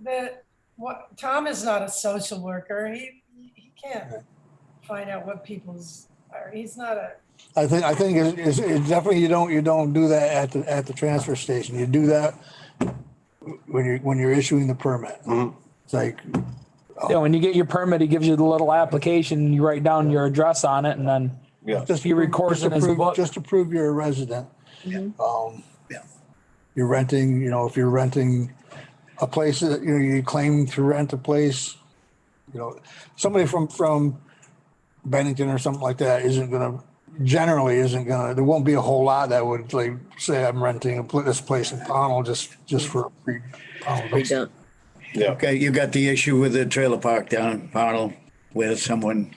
the, what, Tom is not a social worker. He, he can't find out what people's, or he's not a, I think, I think it's, it's- it's definitely, you don't, you don't do that at the, at the transfer station. You do that when you're, when you're issuing the permit. It's like, Yeah, when you get your permit, he gives you the little application, you write down your address on it and then Yeah. just. He records just in his approve- book. Just to prove you're a resident. Mm-hmm. Um, You're renting, you know, if you're renting a place that, you know, you claim to rent a place, you know, somebody from, from Bennington or something like that isn't gonna, generally isn't gonna, there won't be a whole lot that would like say I'm renting a pl- this place in Pownell just, just for a free. We don't, Yeah. Okay, you got the issue with the trailer park down in Pownell where someone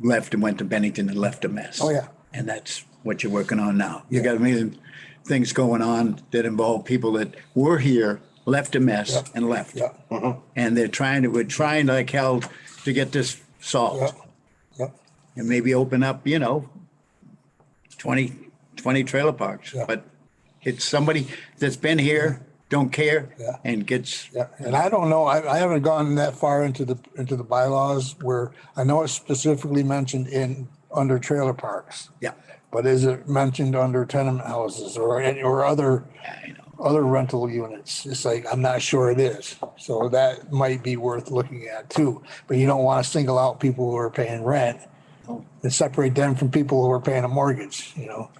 left and went to Bennington and left a mess. Oh, yeah. And that's what you're working on now. You got amazing things going on that involve people that were here, left a mess and left. Yeah, Uh-huh. And they're trying to, we're trying like hell to get this yeah, solved yeah. and maybe open up, you know, 20, 20 trailer parks. Yeah. But it's somebody that's been here, don't care Yeah. and gets Yeah, and I don't know, I, I haven't gone that far into the, into the bylaws where I know it's specifically mentioned in, under trailer parks. Yeah, But is it mentioned under tenement houses or any, or other, I know. other rental units? It's like, I'm not sure it is. So that might be worth looking at too. But you don't want to single out people who are paying rent and separate them from people who are paying a mortgage, you know?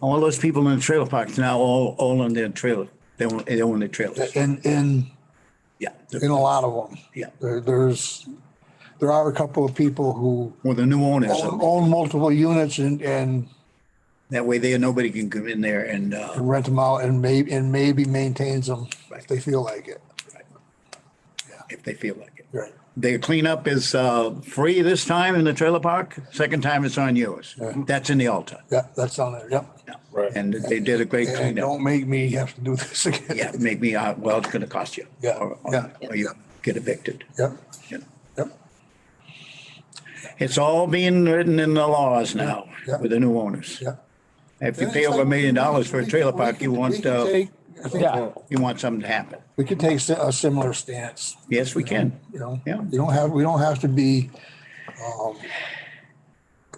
All those people in the trailer parks now, all, all on their trailer. They own, they own their trailers. In, in, Yeah. in a lot of them. Yeah. There, there's, there are a couple of people who Or the new owners. own own multiple units and, and That way there, nobody can come in there and, uh, rent them out and may, and maybe maintains them if Right. they feel like it. if they feel like it. Right. The cleanup is, uh, free this time in the trailer park. Second time it's on yours. That's in the altar. Yeah, that's on there. Yep. Right. And they did a great And cleanup. don't make me have to do this again. Yeah, make me, uh, well, it's gonna cost you. Yeah, Or- or- yeah. Or you get evicted. Yep, you know. yep, It's all being written in the laws now Yeah. with the new owners. yep. If you pay over a million dollars for a trailer park, you We want, can uh, take- I think Yeah. you want something to happen. We could take si- a similar stance, Yes, we can. you know? Yeah. You don't have, we don't have to be, um,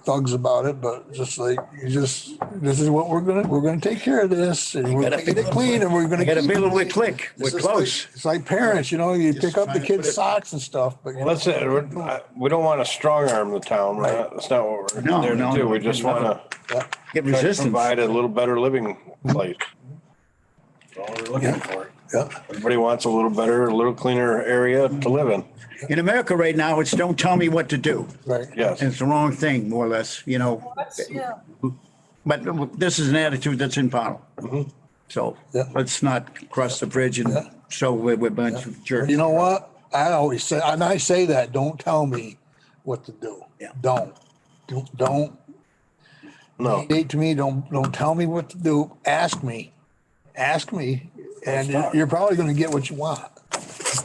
thugs about it, but just like, you just, this is what we're gonna, we're gonna take care of this and we're gotta gonna get feel it it. clean and we're gonna. I got a keep it feeling we're clean. click. We're It's just like- close. It's like parents, you know, you pick up the trying to put kids' it- socks and stuff, but. you know, That's it. We're- I- We don't want to strong arm the town. We're not- That's not what we're No, there no, to do. no. We just want to yeah. Get try to resistance. provide a little better living place. That's All we're looking for. Yeah, Everybody wants a little better, a little cleaner area to live in. In America right now, it's don't tell me what to do. right. Yes. And it's the wrong thing, more or less, you know. what's- yeah. But this is an attitude that's in Pownell. So Mm-hmm. Yeah. let's not cross the bridge and show we're we're a bunch of jerks. You know what? I always say, and I say that, don't tell me what to do. Yeah. Don't, don't, don't No. date to me, don't, don't tell me what to do. Ask me, ask me, and you're- you're probably gonna get what you want,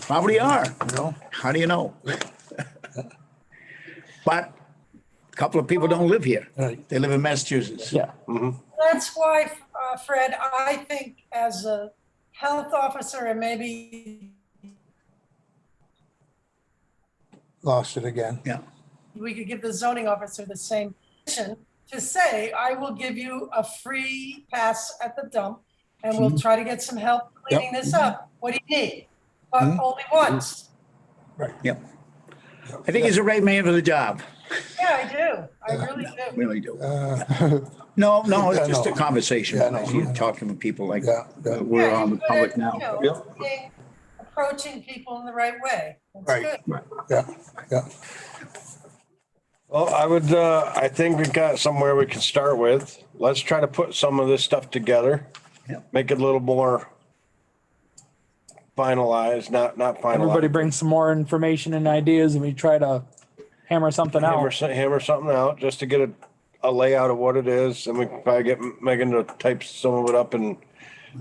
Probably are. you know? How do you know? But a couple of people don't live here. Right. They live in Massachusetts. yeah. That's why, uh, Fred, I think as a health officer and maybe Lost it again. Yeah. we could give the zoning officer the same mission to say, I will give you a free pass at the dump and we'll try to get some help cleaning this up. What do you need? But only once. Yep. I think he's the right man for the job. Yeah, I do. I really do. Really do. Uh, No, no, Yeah, it's just a no. conversation. Yeah, no. You're talking with people like, Yeah, yeah. we're Yeah, on the but, public you now. know, Yep. being- Approaching people in the right way. That's Right. good. Yeah, yeah, Well, I would, uh, I think we've got somewhere we can start with. Let's try to put some of this stuff together. Yep. Make it a little more finalized, not, not Everybody finalized. brings some more information and ideas and we try to hammer something Hammer, out. so- hammer something out just to get a, a layout of what it is and we can probably get Megan to type some of it up and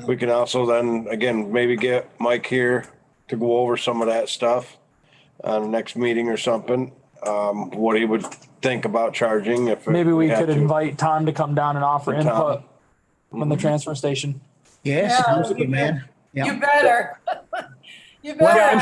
we can also then, again, maybe get Mike here to go over some of that stuff on the next meeting or something. Um, what he would think about charging if. Maybe we had could to. invite Tom to come down and offer Tom. Mm-hmm. input from the transfer station. Yes, sounds Yeah. good, man. Yeah. You better. You Well, better. I'm